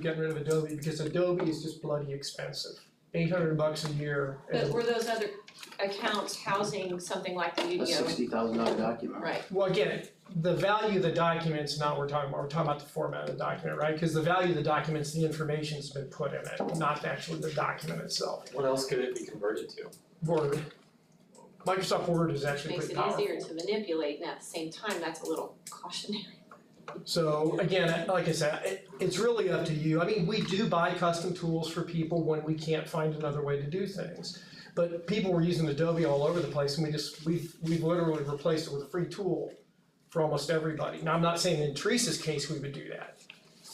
gotten rid of Adobe because Adobe is just bloody expensive. Eight hundred bucks a year But and, were those other accounts housing something like the a UDO? sixty thousand dollar document. Right, well, again, the value of the document's not what we're talking about, we're talking about the format of the document, right? Cause the value of the document's the information's been put in it, not actually the document itself. What else could it be converted to? Word. Microsoft Word is actually makes pretty it powerful. easier to manipulate and at the same time, that's a little cautionary. So again, I- like I said, it, it's really up to you. I mean, we do buy custom tools for people when we can't find another way to do things. But people were using Adobe all over the place and we just, we've, we've literally replaced it with a free tool for almost everybody. Now, I'm not saying in Teresa's case, we would do that.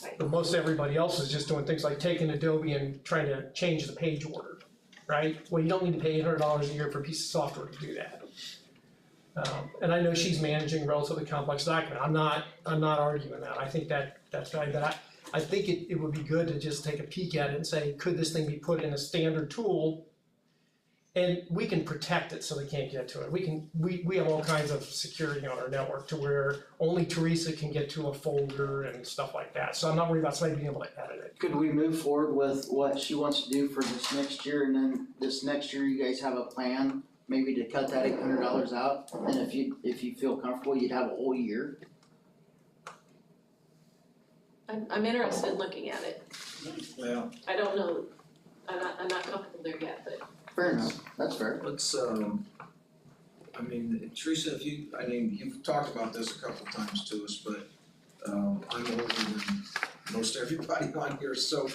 Right. But most everybody else is just doing things like taking Adobe and trying to change the page order, right? Well, you don't need to pay eight hundred dollars a year for a piece of software to do that. Um, and I know she's managing relatively complex document, I'm not, I'm not arguing that, I think that, that's fine, but I, I think it, it would be good to just take a peek at it and say, could this thing be put in a standard tool? And we can protect it so they can't get to it, we can, we, we have all kinds of security on our network to where only Teresa can get to a folder and stuff like that, so I'm not worried about somebody being able to edit it. Could we move forward with what she wants to do for this next year and then this next year you guys have a plan? Maybe to cut that eight hundred dollars out and if you, if you feel comfortable, you'd have a whole year. I'm, I'm interested in looking at it. Well, I don't know, I'm not, I'm not comfortable there yet, but Fair enough, that's fair. let's, um, I mean, Teresa, if you, I mean, you've talked about this a couple times to us, but, um, I'm older than most everybody on here, so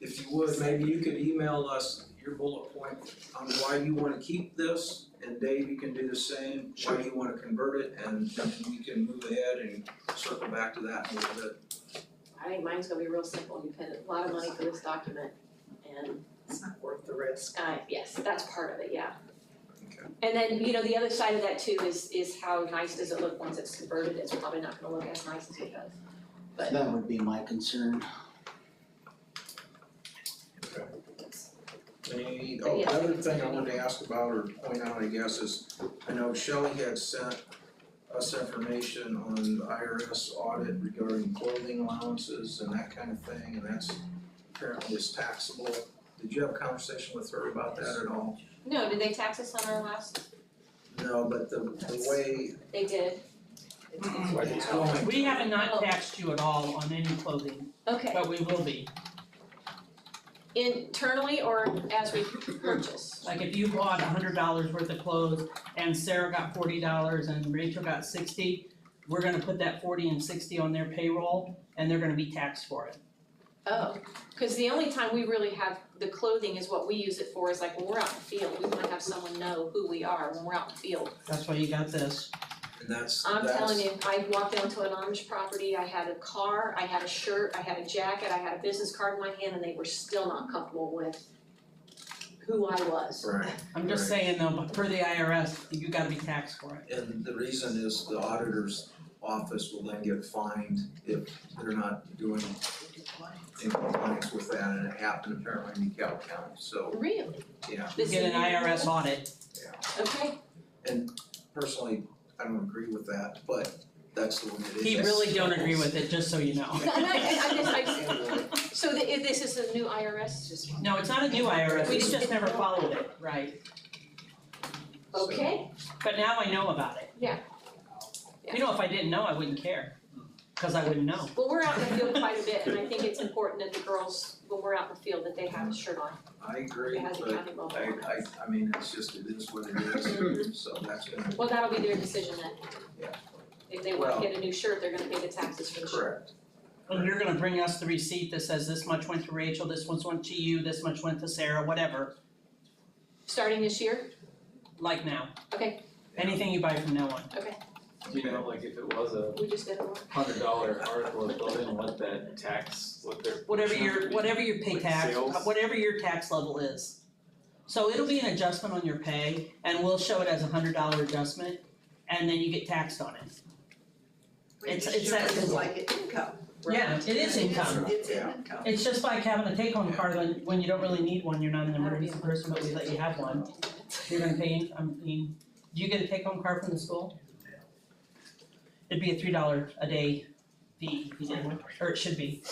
if you would, maybe you could email us your bullet point on why you wanna keep this, and Dave, you can do the same, why you wanna convert it, and we can move ahead and circle back to that in a little bit. I think mine's gonna be real simple. You paid a lot of money for this document and It's not worth the risk. Uh, yes, that's part of it, yeah. Okay. And then, you know, the other side of that too is, is how nice does it look once it's converted, it's probably not gonna look as nice as it does. But- That would be my concern. Any, oh, the Yeah. other thing I wanted to ask about or point out, I guess, is I know Shelley had sent us information on the IRS audit regarding clothing allowances and that kind of thing, and that's apparently is taxable. Did you have a conversation with her about that at all? No, did they tax us on our last, No, but the the way they did, Why do you it's tell me? going, We have not taxed you at all on any clothing, okay, but we will be. internally or as we purchase? Like if you bought hundred dollars worth of clothes and Sarah got forty dollars and Rachel got sixty, we're gonna put that forty and sixty on their payroll and they're gonna be taxed for it. Oh, cause the only time we really have, the clothing is what we use it for, is like when we're out in the field, we wanna have someone know who we are when we're out in the field. That's why you got this. and that's that's. I'm telling you, I walked onto an Amish property, I had a car, I had a shirt, I had a jacket, I had a business card in my hand, and they were still not comfortable with who I was. Right. I'm just Right. saying though, but for the IRS, you gotta be taxed for it. And the reason is the auditor's office will then get fined if they're not doing in compliance with that, and it happened apparently in DeKalb County, so, Really? yeah. You This get an is- IRS audit. Okay, Personally, I don't agree with that, but that's the way it is. He really don't agree with it, just so you know. No, no, I- I just- I just- Anyway, so the, if this is a new IRS, just, No, it's not a new IRS, We we just- just never followed it, right? so- okay, But now I know about it. Yeah. You know, if I didn't know, I wouldn't care, cause I wouldn't know. well, we're out in the field quite a bit, and I think it's important that the girls, when we're out in the field, that they have a shirt on, I agree, that has a but county logo I, on it. I, I mean, it's just, it is what it is, so that's gonna, Well, that'll be their decision then. Yeah. If they wanna Well- get a new shirt, they're gonna pay the taxes for the shirt. correct. And you're gonna bring us the receipt that says this much went to Rachel, this much went to you, this much went to Sarah, whatever, Starting this year, like now. Okay. Anything you buy from now on. You know, like if it was a we just did one. hundred dollar article of clothing, what that tax, what their. Whatever your, whatever your pay Like tax, uh, sales? whatever your tax level is. So it'll be an adjustment on your pay and we'll show it as a hundred dollar adjustment and then you get taxed on it. It's- it's that It's simple. like an income, right? Yeah, it is income. It's an Yeah. income. It's just like having a take-home card when, when you don't really need one, you're not an emergency person, but we let you have one. You're gonna pay, in- I mean, do you get a take-home card from the school? It'd be a three dollar a day fee if you did one, or it should be.